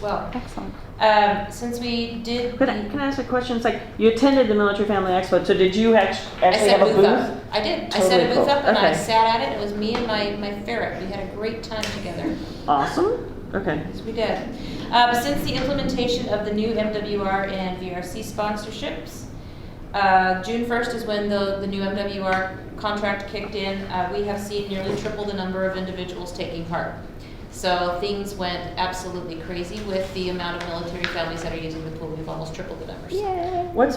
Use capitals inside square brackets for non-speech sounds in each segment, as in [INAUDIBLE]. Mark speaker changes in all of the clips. Speaker 1: Well,
Speaker 2: Excellent.
Speaker 1: um, since we did.
Speaker 3: Could
Speaker 1: the-
Speaker 3: I, can I ask a question? It's like, you attended the Military Family Expo, so did you act-
Speaker 1: I
Speaker 3: actually
Speaker 1: set
Speaker 3: have a booth?
Speaker 1: up. I did. I set
Speaker 3: Totally
Speaker 1: a booth
Speaker 3: cool.
Speaker 1: up and I
Speaker 3: Okay.
Speaker 1: sat at it. It was me and my, my ferret. We had a great time together.
Speaker 3: Awesome, okay.
Speaker 1: Yes, we did. Um, since the implementation of the new MWR and VRC sponsorships, uh, June 1st is when the, the new MWR contract kicked in. Uh, we have seen nearly triple the number of individuals taking part. So things went absolutely crazy with the amount of military families that are using the pool. We've almost tripled the numbers.
Speaker 2: Yay.
Speaker 3: What's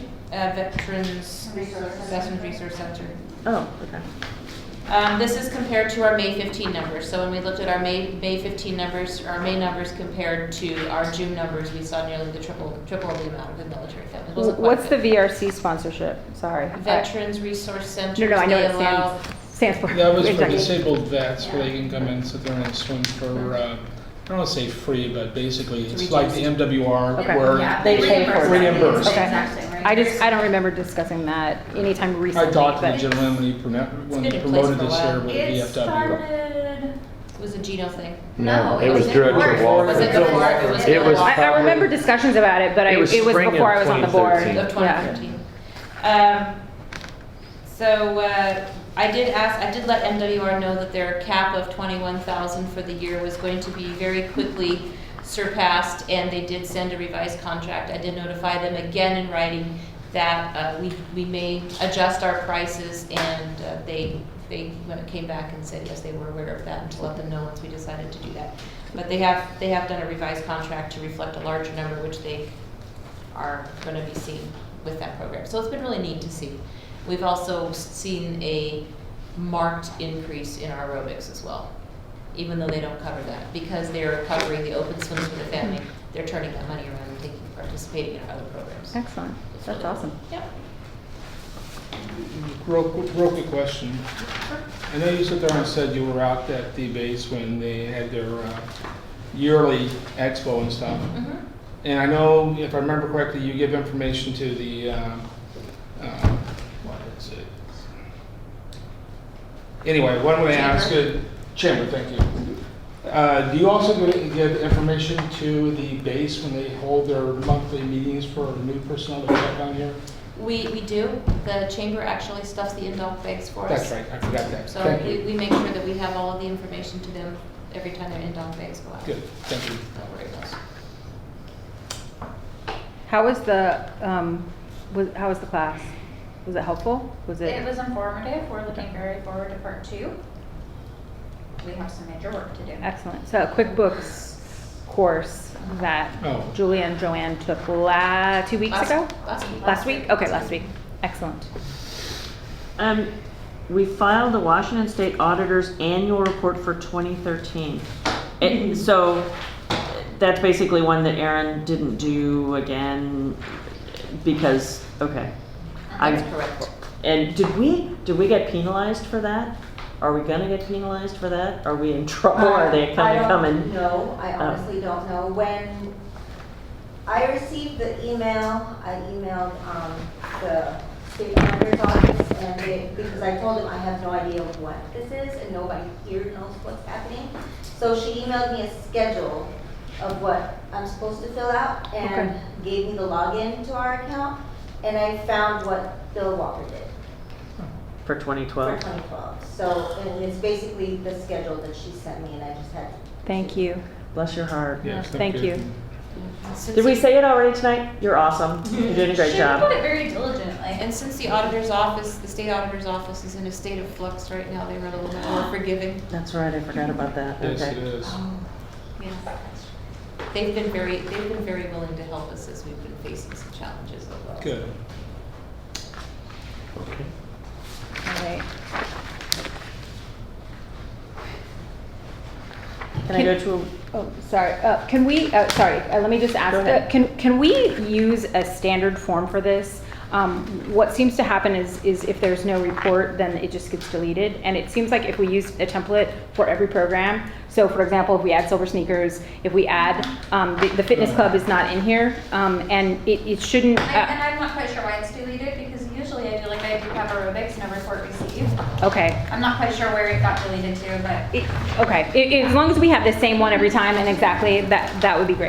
Speaker 1: Uh, Veterans Veterans Resource Center.
Speaker 3: Oh, okay.
Speaker 1: Um, this is compared to our May 15 numbers. So when we looked at our May, May 15 numbers, our May numbers compared to our June numbers, we saw nearly the triple, triple the amount of the military families. It wasn't quite
Speaker 2: What's the
Speaker 1: good.
Speaker 2: VRC sponsorship? Sorry.
Speaker 1: Veterans Resource Center?
Speaker 2: No, no, I know what it stands, stands for.
Speaker 4: That was for
Speaker 2: Exactly.
Speaker 4: disabled vets, where they can come in, sit there and swim for, uh, I don't wanna say free, but basically, it's like the
Speaker 2: Okay.
Speaker 4: MWR where.
Speaker 3: They pay for it.
Speaker 4: Reimbursed.
Speaker 2: Okay.
Speaker 5: Exactly, right.
Speaker 2: I just, I don't remember discussing that anytime recently.
Speaker 4: I talked to the
Speaker 2: but-
Speaker 4: gentleman when he promo- when
Speaker 1: It's
Speaker 4: he
Speaker 1: been in place
Speaker 4: promoted
Speaker 1: for a
Speaker 4: this here
Speaker 1: while.
Speaker 4: with
Speaker 5: It
Speaker 4: VFW.
Speaker 5: started,
Speaker 1: It was a Geno thing.
Speaker 5: no, it
Speaker 6: it
Speaker 5: was
Speaker 6: was Director
Speaker 5: before.
Speaker 6: Walker.
Speaker 1: Was it before? It was
Speaker 6: It was
Speaker 1: before.
Speaker 2: I, I remember
Speaker 6: probably-
Speaker 2: discussions about it, but I,
Speaker 6: It
Speaker 2: it was
Speaker 6: was spring of
Speaker 2: before I was on the board.
Speaker 6: 2013.
Speaker 1: of 2013. Um, So uh, I did ask, I did let MWR know that their cap of 21,000 for the year was going to be very quickly surpassed, and they did send a revised contract. I did notify them again in writing that uh, we we may adjust our prices, and uh, they, they came back and said, yes, they were aware of that, and to let them know once we decided to do that. But they have, they have done a revised contract to reflect a larger number, which they are going to be seen with that program. So it's been really neat to see. We've also s- seen a marked increase in our aerobics as well, even though they don't cover that. Because they're covering the open swims for the family, they're turning that money around and thinking, participating in other programs.
Speaker 2: Excellent. That's awesome.
Speaker 1: Yep.
Speaker 4: Real, qu- real quick question. I know you sit there and said you were out at the base when they had their uh, yearly expo and stuff.
Speaker 1: Mhm.
Speaker 4: And I know, if I remember correctly, you give information to the, um, uh, what is it? Anyway, one way I ask it, chamber, thank you. Uh, Do you also gi- give information to the base when they hold their monthly meetings for new personnel to come down here?
Speaker 1: We, we do, the chamber actually stuffs the in-dog bags for us.
Speaker 4: That's right, I forgot that.
Speaker 1: So
Speaker 4: Thank
Speaker 1: we,
Speaker 4: you.
Speaker 1: we make sure that we have all of the information to them every time their in-dog bags go out.
Speaker 4: Good, thank you.
Speaker 1: Don't worry about it.
Speaker 2: How was the, um, was, how was the class? Was it helpful? Was it?
Speaker 5: It was informative, we're looking very forward to part two. We have some major work to do.
Speaker 2: Excellent. So a QuickBooks course that
Speaker 4: Oh.
Speaker 2: Julie and Joanne took la, two weeks
Speaker 1: Last-
Speaker 2: ago?
Speaker 1: Last week.
Speaker 2: Last week? Okay, last week. Excellent.
Speaker 3: Um, we filed the Washington State Auditor's Annual Report for 2013. It- so, that's basically one that Aaron didn't do again, because, okay.
Speaker 1: That's
Speaker 3: I-
Speaker 1: correct.
Speaker 3: And did we, did we get penalized for that? Are we gonna get penalized for that? Are we in trouble? Are they coming, coming? Oh.
Speaker 7: No, I honestly don't know. When I received the email, I emailed, um, the state auditor's office and they, because I told them I have no idea what this is and nobody here knows what's happening. So she emailed me a schedule of what I'm supposed to fill out and gave me the login to our account. And I found what Bill Walker did
Speaker 3: For
Speaker 7: for
Speaker 3: 2012?
Speaker 7: 2012. So, and it's basically the schedule that she sent me and I just had to
Speaker 2: Thank you.
Speaker 3: Bless your heart.
Speaker 4: Yes,
Speaker 2: Thank you.
Speaker 3: Did we say it already tonight? You're awesome. You're doing a great [LAUGHS]
Speaker 5: She
Speaker 3: job.
Speaker 5: put it very diligently.
Speaker 1: And since the auditor's office, the state auditor's office is in a state of flux right now, they were a little bit more forgiving.
Speaker 3: That's right, I forgot about that.
Speaker 4: Yes, it
Speaker 3: Okay.
Speaker 4: is.
Speaker 1: They've been very, they've been very willing to help us as we've been facing some challenges as well.
Speaker 4: Good.
Speaker 2: All right.
Speaker 3: Can I go to a
Speaker 2: Oh, sorry. Uh, can we, uh, sorry, uh, let me just ask,
Speaker 3: Go ahead.
Speaker 2: uh, can, can we use a standard form for this? Um, what seems to happen is, is if there's no report, then it just gets deleted. And it seems like if we use a template for every program, so for example, if we add silver sneakers, if we add, um, the, the fitness club is not in here, um, and it, it shouldn't,
Speaker 5: I-
Speaker 2: uh,
Speaker 5: And I'm not quite sure why it's deleted, because usually I do, like, I do have aerobics, no report received.
Speaker 2: Okay.
Speaker 1: I'm not quite sure where it got deleted to, but
Speaker 2: It- Okay, I- as long as we have the same one every time and exactly, that, that would be great.